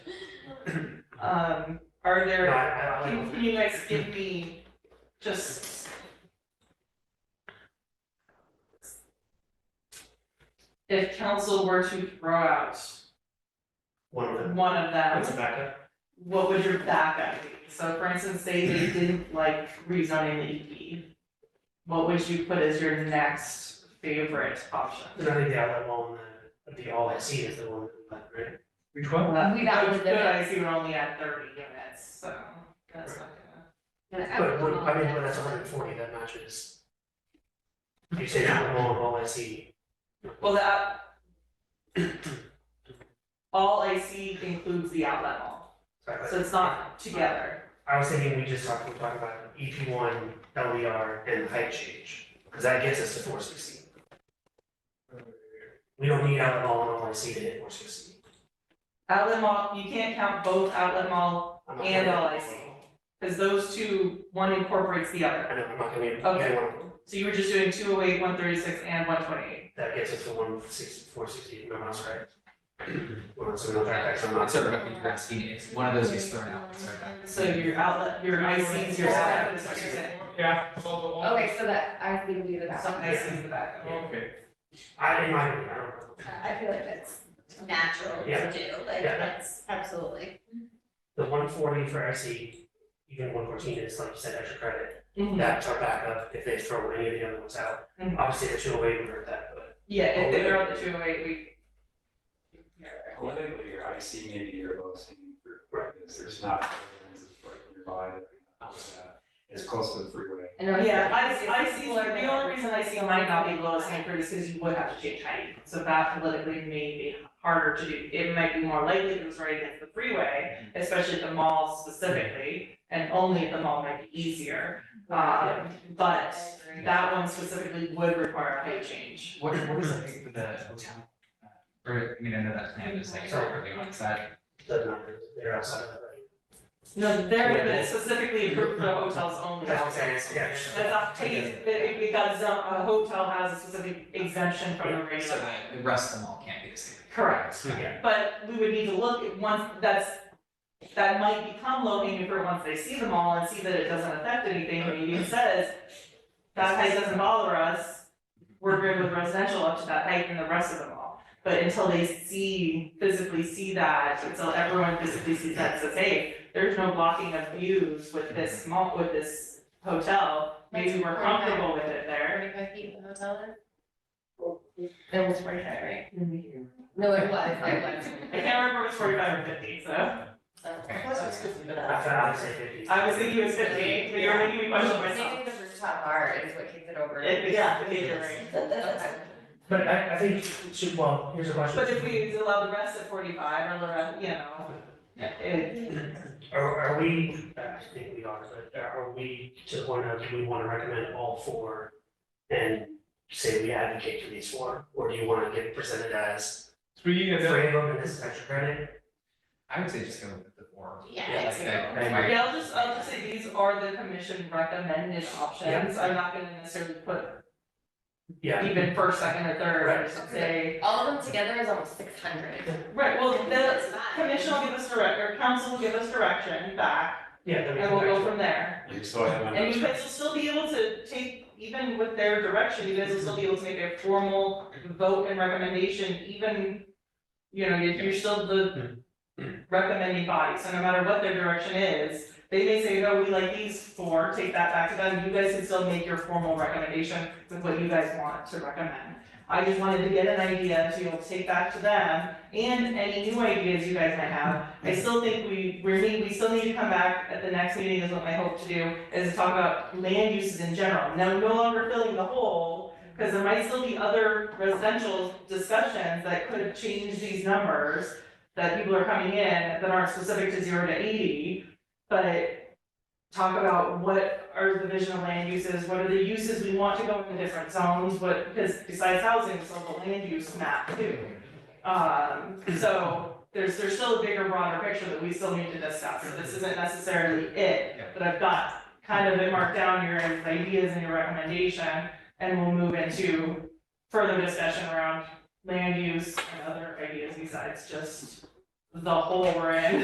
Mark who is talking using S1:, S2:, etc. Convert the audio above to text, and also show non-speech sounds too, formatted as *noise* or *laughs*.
S1: Um, are
S2: No,
S1: there,
S2: I- I
S1: can
S2: don't
S1: can you guys give me just? If council were to throw out
S2: One of them,
S1: one of them,
S2: that's a backup.
S1: what would your backup be? So for instance, say they didn't like rezoning the EP. What would you put as your next favorite option?
S2: And I think the outlet mall and uh, the, the all I see is the one, but, right?
S3: Which one?
S1: Well,
S4: We've outlined
S1: Good,
S4: it.
S1: I see we're only at thirty units, so that's not gonna.
S2: But, but, I mean, but that's hundred and forty, that matches. You say outlet mall and all I see,
S1: Well, that. *clears throat* All I see includes the outlet mall,
S2: sorry,
S1: so
S2: but
S1: it's not together.
S2: I was thinking we just talked, we talked about EP one, LDR and height change, cause that gets us to four sixty. We don't need outlet mall and all I see to hit four sixty.
S1: Outlet mall, you can't count both outlet mall, And all I see. because those two, one incorporates the other.
S2: I know, I'm not gonna, be- you
S1: Okay.
S2: don't wanna-
S1: So you were just doing two oh eight, one thirty six, and one twenty eight.
S2: that gets us to one sixty, four sixty, no, that's right. *clears throat* Well, so no, that- that's
S3: It's
S2: not-
S3: sort of what you're asking, it's one of those gets thrown out, sorry.
S1: So your outlet, your ICs, your outlet, is what you're saying.
S3: Yeah.
S4: Okay, so that, I think we can do the back.
S1: Some
S4: I,
S1: ICs the back.
S3: Okay.
S2: I, in my opinion, I don't know.
S4: I feel like that's,
S5: natural
S2: Yeah.
S5: to do, like
S2: Yeah.
S3: uh,
S5: that's absolutely.
S2: The one forty for SE, even one fourteen is like you said, extra credit,
S1: Mhm.
S2: that's our backup if they throw any of the other ones out.
S4: Mm-hmm.
S1: Mhm.
S2: Obviously, the two oh eight would hurt that, but
S1: Yeah, if they were on the two oh eight, we.
S6: Politically, I see maybe your lowest hanging fruit, right, is there's not, there's like nearby, that, uh, it's close to the freeway.
S4: I know.
S1: Yeah, I, I see, the only reason I see mine not be lowest hanging fruit is because you would have to change height, so that politically may be harder to do. It might be more likely if it was right against the freeway, especially at the mall specifically, and only at the mall might be easier. Um, but that one specifically would require a height change.
S3: What, what is the height for the hotel? Uh, Or, I mean, I know that plan is like really on side.
S2: doesn't matter, they're outside of that.
S1: No, there, but it's specifically approved for hotels only.
S2: That's what I'm saying, it's- yeah, sure.
S1: That's not, it- it- because um, a hotel has a specific exemption from the
S3: So
S1: regular.
S3: that the rest of them all can't be the same.
S1: Correct.
S2: Yeah.
S1: But we would need to look at once, that's, that might become low hanging fruit once they see them all and see that it doesn't affect anything, maybe it says. That height doesn't bother us, we're good with residential up to that height and the rest of them all. But until they see, physically see that, until everyone physically sees that and says, hey, there's no blocking of views with this small, with this hotel. Maybe we're comfortable with it there.
S5: Forty-five feet from the hotel
S4: It was forty-five, right?
S1: I
S4: No, it
S1: *laughs*
S4: was, it was.
S1: can't remember if it's forty five or fifty, so.
S3: Okay.
S2: I thought I'd say fifty.
S1: I was thinking it was fifty, but you're making me question myself.
S4: Maybe the rooftop bar is what kicks it over.
S1: It- yeah, it is.
S4: Okay.
S2: But I, I think, should, well, here's a question.
S1: But if we allow the rest at forty-five or the rest, you know, it,
S2: Are, are we, uh, I think we are, but uh, are we to the point of, do we wanna recommend all four? And say we advocate for these four, or do you wanna get presented as
S3: Three
S2: three of them and this is extra credit?
S3: I would say just go with the four.
S5: Yeah,
S3: Like that, that might-
S1: yeah, I'll just, I'll just say these are the commission recommended options. I'm not gonna necessarily put
S2: Yeah,
S1: even first, second, or third, I just say.
S4: All of them together is almost six hundred.
S1: Right, well, the
S5: That's not-
S1: commission will give us direct, or council will give us direction back,
S2: yeah, then we
S1: and
S2: come
S1: we'll
S2: back
S1: go
S2: to it.
S1: from there.
S6: You still have my
S1: And you
S6: next-
S1: guys will still be able to take, even with their direction, you guys will still be able to make a formal vote and recommendation, even, you know, if you're still the recommending body, so no matter what their direction is, they may say, no, we like these four, take that back to them, you guys can still make your formal recommendation with what you guys want to recommend. I just wanted to get an idea to be able to take back to them, and any new ideas you guys might have. I still think we, we're need, we still need to come back at the next meeting is what my hope to do, is to talk about land uses in general. Now, no longer filling the hole, because there might still be other residential discussions that could have changed these numbers that people are coming in that aren't specific to zero to eighty, but talk about what are the vision of land uses, what are the uses we want to go in different zones, what, because besides housing, it's all the land use map too. Um, so there's, there's still a bigger, broader picture that we still need to discuss, so this isn't necessarily it.
S3: Yeah.
S1: But I've got kind of it marked down your ideas and your recommendation, and we'll move into further discussion around land use and other ideas besides just the whole we're in.